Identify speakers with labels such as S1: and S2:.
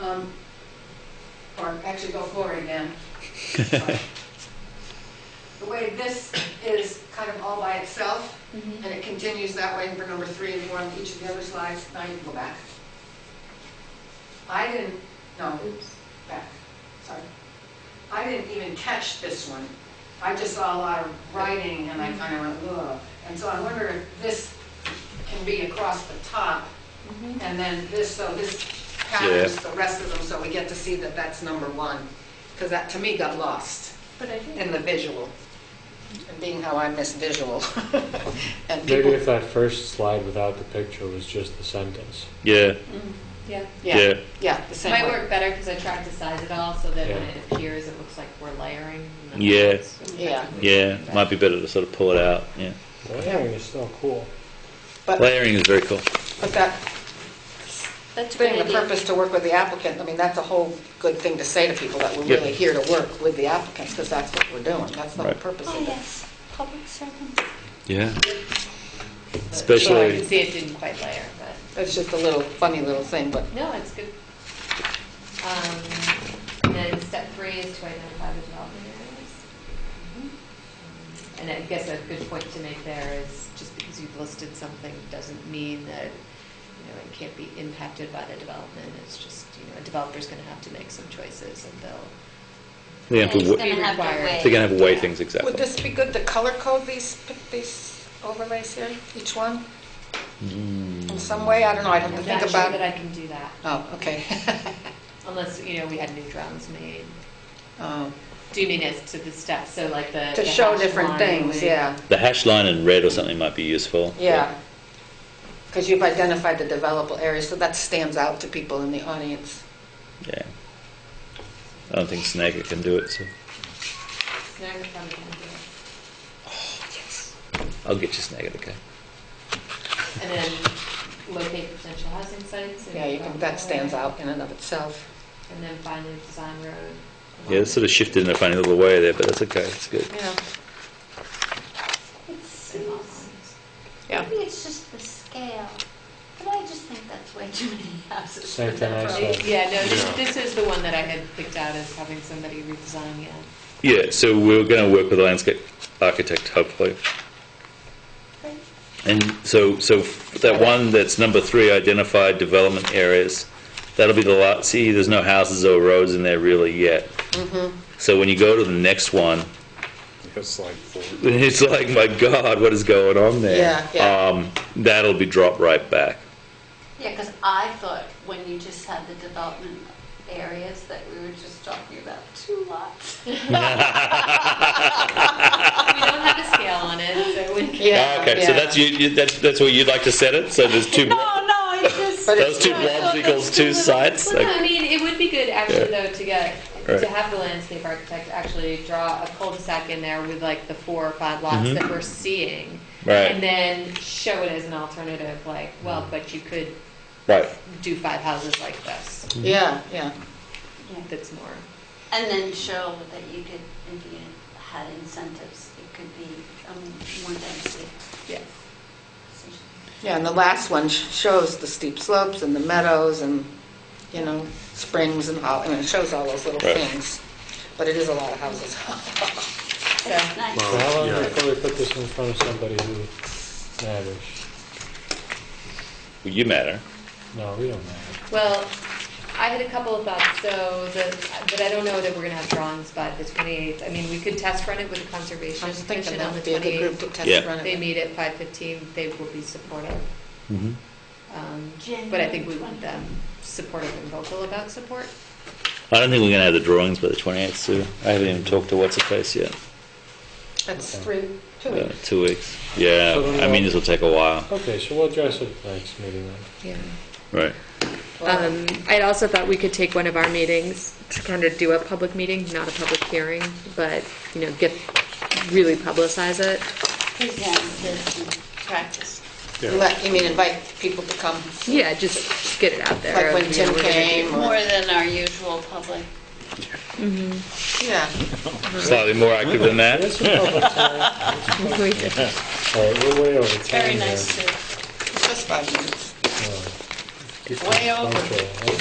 S1: Um, Or actually go forward again. The way this is kind of all by itself, and it continues that way for number three and four on each of the other slides, now you can go back. I didn't, no,
S2: Oops.
S1: back, sorry. I didn't even catch this one. I just saw a lot of writing and I kind of went, ugh. And so I wonder if this can be across the top
S2: Mm-hmm.
S1: and then this, so this covers the rest of them, so we get to see that that's number one. Because that, to me, got lost
S2: But I think,
S1: in the visual, and being how I miss visual. And
S3: Maybe
S1: people,
S3: if that first slide without the picture was just the sentence.
S4: Yeah,
S2: mm-hmm. yeah,
S1: yeah,
S4: yeah.
S1: yeah, the same
S2: might
S1: way.
S2: work better because I tried to size it all so that when
S3: Yeah.
S2: it appears, it looks like we're layering. and then
S4: Yeah.
S2: it's-
S1: Yeah.
S4: Yeah, might be better to sort of pull it out. Yeah,
S3: Layering is still cool.
S1: But,
S4: layering is very cool.
S1: but that,
S2: That's a
S1: being
S2: good
S1: the
S2: idea.
S1: purpose to work with the applicant, I mean, that's a whole good thing to say to people, that we're
S4: Yep.
S1: really here to work with the applicants, because that's what we're doing, that's the whole
S4: Right.
S1: purpose
S5: Oh,
S1: of it.
S5: yes, public servant.
S4: Yeah,
S2: So I can
S4: especially
S2: see it didn't quite layer, but,
S1: It's just a little, funny little thing, but
S2: no, it's good. Um, And then step three is to identify the development areas. And I guess a good point to make there is, just because you've listed something doesn't mean that, you know, it can't be impacted by the development. It's just, you know, a developer's going to have to make some choices and they'll
S4: they have to,
S5: It's
S4: wa-
S5: gonna have to
S2: Required.
S5: wait.
S4: they're gonna have to weigh
S5: Yeah.
S4: things exactly.
S1: would this be good to color code these, these overlays here, each one?
S4: Mm.
S1: In some way, I don't know, I'd have to
S2: I'm
S1: think
S2: not
S1: about
S2: sure that
S1: it.
S2: I can do that,
S1: Oh, okay.
S2: unless, you know, we had new drawings made.
S1: Oh,
S2: Do you mean as to the steps, so like the...
S1: To
S2: the
S1: show
S2: hash
S1: different
S2: line
S1: things,
S2: would-
S1: yeah,
S4: The hash line in red or something might be useful.
S1: yeah. Because you've identified the developable areas, so that stands out to people in the audience.
S4: Yeah. I don't think Snagger can do it, so
S2: No, I probably can't do it.
S4: I'll get you Snagger, okay?
S2: And then locate potential housing sites. and-
S1: Yeah, you can, that stands out in and of itself.
S2: And then finally, design road.
S4: Yeah, it's sort of shifted in a funny little way there, but that's okay. It's good.
S1: Yeah.
S5: It
S2: And lot
S5: seems,
S2: lines.
S1: Yeah.
S5: maybe it's just the scale, but I just think that's way too many houses.
S3: Same thing I said.
S2: Yeah, no, this, this is the one that I had picked out as having somebody redesign, yeah.
S4: Yeah, so we're going to work with a landscape architect, hopefully. And so, so that one that's number three, identified development areas, that'll be the lot, see, there's no houses or roads in there really yet.
S1: Mm-hmm.
S4: So when you go to the next one,
S6: It's like four.
S4: it's like, my God, what is going on there?
S1: Yeah, yeah.
S4: Um, that'll be dropped right back.
S5: Yeah, because I thought when you just had the development areas that we were just talking about two lots.
S2: We don't have a scale on it, so we...
S1: Yeah,
S4: Ah, Okay, so
S1: yeah.
S4: that's you, you- that's, that's where you'd like to set it, so there's two,
S5: No,
S4: blo-
S5: no, it's just.
S1: But
S4: those two
S5: I thought
S4: blobs
S5: those
S4: equals
S5: two
S4: two
S5: little-
S4: sites?
S2: Well, no, I
S4: Like,
S2: mean, it would be good actually
S4: Yeah.
S2: though to get,
S4: Right.
S2: to have the landscape architect actually draw a cul-de-sac in there with like the four or five lots that we're seeing.
S4: Mm-hmm. Right.
S2: And then show it as an alternative, like, well, but you could
S4: Right,
S2: do five houses like this,
S1: Yeah, yeah.
S5: Yeah.
S2: that's more.
S5: And then show that you could, if you had incentives, it could be um, more density.
S2: Yeah.
S1: Yeah, and the last one sh- shows the steep slopes and the meadows and, you know, springs and all, I mean, it shows all those little
S4: Right.
S1: things. But it is a lot of houses.
S5: It's nice.
S3: So how long
S6: yeah.
S3: before we put this in front of somebody who matters?
S4: Well, you matter.
S3: No, we don't matter.
S2: Well, I had a couple of thoughts, so the, but I don't know that we're gonna have drawings by the twenty-eighth. I mean, we could test run it with the
S1: I
S2: Conservation
S1: was thinking
S2: Commission
S1: that
S2: on the
S1: would be a good group to
S2: twenty-eighth.
S1: test
S4: Yeah.
S1: run it.
S2: They
S1: with.
S2: meet at five fifteen, they will be supportive.
S4: Mm-hmm.
S2: Um, But I think we want them supportive and vocal about support.
S4: I don't think we're going to have the drawings by the 28th, Sue. I haven't even talked to What's-Her-Face yet.
S1: That's three, two
S4: Uh,
S1: weeks.
S4: two weeks. Yeah,
S3: So then
S4: I mean,
S3: we'll-
S4: this will take a while.
S3: Okay, so we'll address it next meeting then.
S2: Yeah.
S4: Right.
S2: Um, I'd also thought we could take one of our meetings to kind of do a public meeting, not a public hearing, but, you know, get, really publicize it.
S5: Present this and practice.
S1: Let- You mean invite people to come,
S2: Yeah, just get it out there.
S1: like when
S2: you know,
S1: Tim
S2: we're gonna do-
S1: came,
S5: More
S1: or,
S5: than our usual public.
S1: yeah.
S4: Slightly more active than that.
S3: It's a public time.
S2: We did.
S3: All right, we're way over time
S5: Very
S3: here.
S5: nice to.
S1: It's just five minutes.
S3: Keep
S1: Way
S3: it
S1: over.
S3: punctual.